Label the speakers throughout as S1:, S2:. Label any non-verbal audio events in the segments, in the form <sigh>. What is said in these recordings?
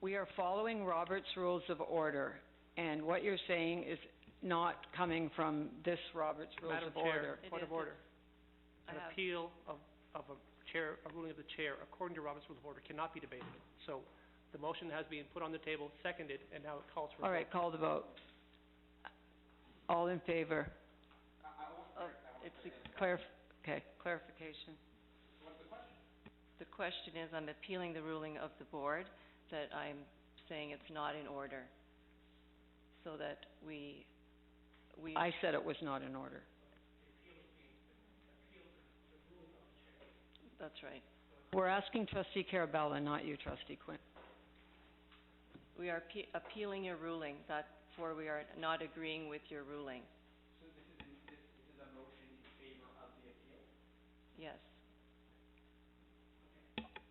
S1: we are following Robert's Rules of Order, and what you're saying is not coming from this Robert's Rules
S2: Madam
S1: of
S2: Chair.
S1: Order.
S3: It
S2: Point of
S3: is,
S2: order.
S3: I
S2: An
S3: have-
S2: appeal of, of a chair, a ruling of the chair, according to Robert's Rules of Order, cannot be debated. So the motion has been put on the table, seconded, and now it calls for a vote.
S1: All right, call the vote. All in favor?
S3: Oh, it's a-
S1: Clarif- okay, clarification.
S3: The question is, I'm appealing the ruling of the board, that I'm saying it's not in order, so that we, we...
S1: I said it was not in order.
S3: That's right.
S1: We're asking trustee Carabella, not you, trustee Quinn.
S3: We are appe- appealing your ruling, that's where we are not agreeing with your ruling. So this is,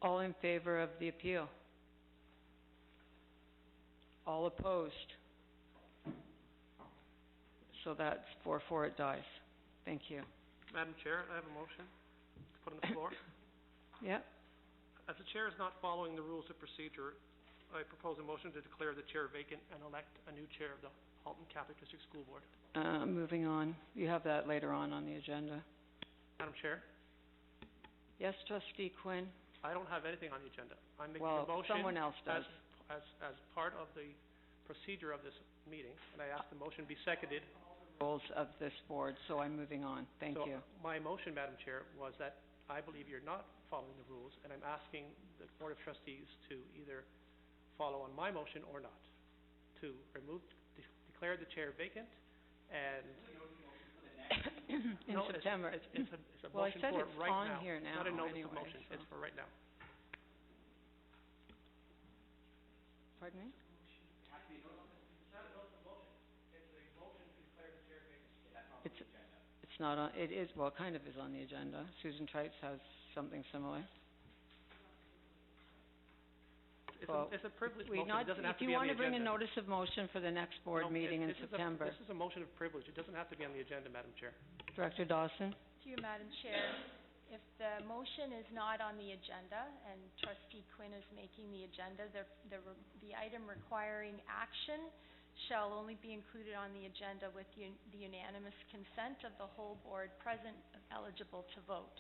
S1: All in favor of the appeal? All opposed? So that's four, four, it dies. Thank you.
S2: Madam Chair, I have a motion to put on the <coughs> floor.
S1: Yeah,
S2: As the chair is not following the rules of procedure, I propose a motion to declare the chair vacant and elect a new chair of the Halton Catholic District School Board.
S1: uh, moving on. You have that later on on the agenda.
S2: Madam Chair,
S1: Yes, trustee Quinn?
S2: I don't have anything on the agenda. I'm making a
S1: Well,
S2: motion
S1: someone else does.
S2: as, as, as part of the procedure of this meeting, and I ask the motion be seconded.
S1: Rules of this board, so I'm moving on. Thank
S2: <coughs>
S1: you.
S2: So my motion, Madam Chair, was that I believe you're not following the rules, and I'm asking the Board of Trustees to either follow on my motion or not, to remove, de- declare the chair vacant, and...
S1: In
S2: No, it's-
S1: September.
S2: it's- it's a- it's a
S1: Well, I
S2: motion
S1: said
S2: for
S1: it's
S2: right
S1: on
S2: now.
S1: here
S2: Not a
S1: now
S2: notice of
S1: anyway,
S2: motion,
S1: so-
S2: it's for right now.
S1: <coughs> Pardon me? It's, it's not on, it is, well, it kind of is on the agenda. Susan Trites has something similar.
S2: It's a,
S1: Well,
S2: it's a privilege
S1: We
S2: motion,
S1: not,
S2: it doesn't have
S1: if
S2: to
S1: you
S2: be on
S1: want
S2: the
S1: to bring a
S2: agenda.
S1: notice of motion for the next
S2: No,
S1: board meeting in
S2: it- this is a-
S1: September.
S2: this is a motion of privilege, it doesn't have to be on the agenda, Madam Chair.
S1: Director Dawson?
S4: To you, Madam Chair. If the motion is not on the agenda and trustee Quinn is making the agenda, the, the, re- the item requiring action shall only be included on the agenda with un- the unanimous consent of the whole board present eligible to vote.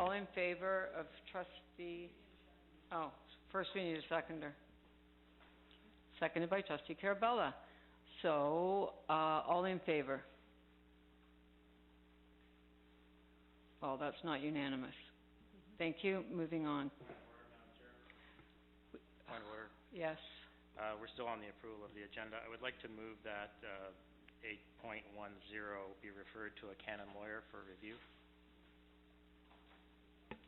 S1: All in favor of trustee, oh, first we need a seconder. Seconded by trustee Carabella. So, uh, all in favor? Oh, that's not unanimous. Thank you, moving on.
S5: Point of order.
S1: Yes,
S5: Uh, We're still on the approval of the agenda. I would like to move that uh, 8.10 be referred to a canon lawyer for review.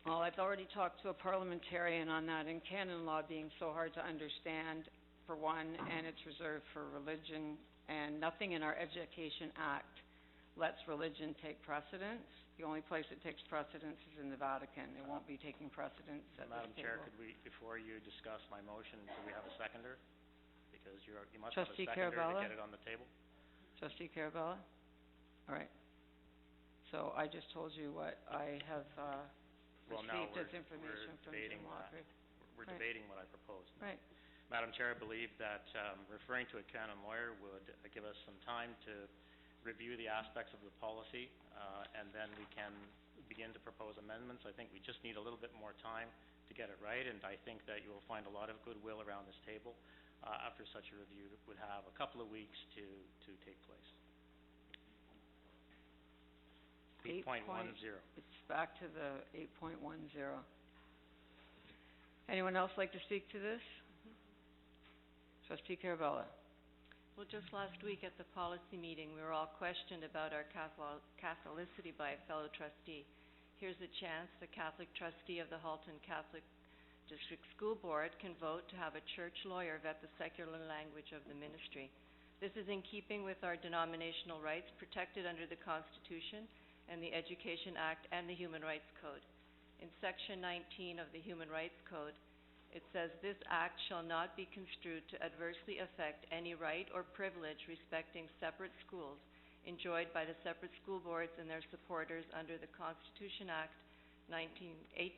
S1: well, Oh, I've already talked to a parliamentarian on that, and canon law being so hard to understand, for one, and it's reserved for religion, and nothing in our Education Act lets religion take precedence. The only place it takes precedence is in the Vatican. It won't be taking precedence at
S5: Madam
S1: this
S5: Chair,
S1: table.
S5: could we, before you discuss my motion, do we have a seconder? Because you're, you must have a
S1: Trustee
S5: seconder to
S1: Carabella?
S5: get it on the table.
S1: Trustee Carabella? All right. So I just told you what I have, uh,
S5: Well, now
S1: received as
S5: we're-
S1: information
S5: we're
S1: from
S5: debating
S1: Jim
S5: that.
S1: Walker.
S5: We're
S1: Right.
S5: debating what I proposed.
S1: Right.
S5: Madam Chair, I believe that um, referring to a canon lawyer would uh, give us some time to review the aspects of the policy, uh, and then we can begin to propose amendments. I think we just need a little bit more time to get it right, and I think that you will find a lot of goodwill around this table uh, after such a review would have a couple of weeks to, to take place.
S1: Eight point-
S5: 8.10.
S1: It's back to the eight point one zero. Anyone else like to speak to this? Trustee Carabella?
S3: well, just last week at the policy meeting, we were all questioned about our Cathol- Catholicity by a fellow trustee. Here's a chance, the Catholic trustee of the Halton Catholic District School Board can vote to have a church lawyer vet the secular language of the ministry. This is in keeping with our denominational rights protected under the Constitution and the Education Act and the Human Rights Code. In Section 19 of the Human Rights Code, it says, "This act shall not be construed to adversely affect any right or privilege respecting separate schools enjoyed by the separate school boards and their supporters under the Constitution Act 19, 18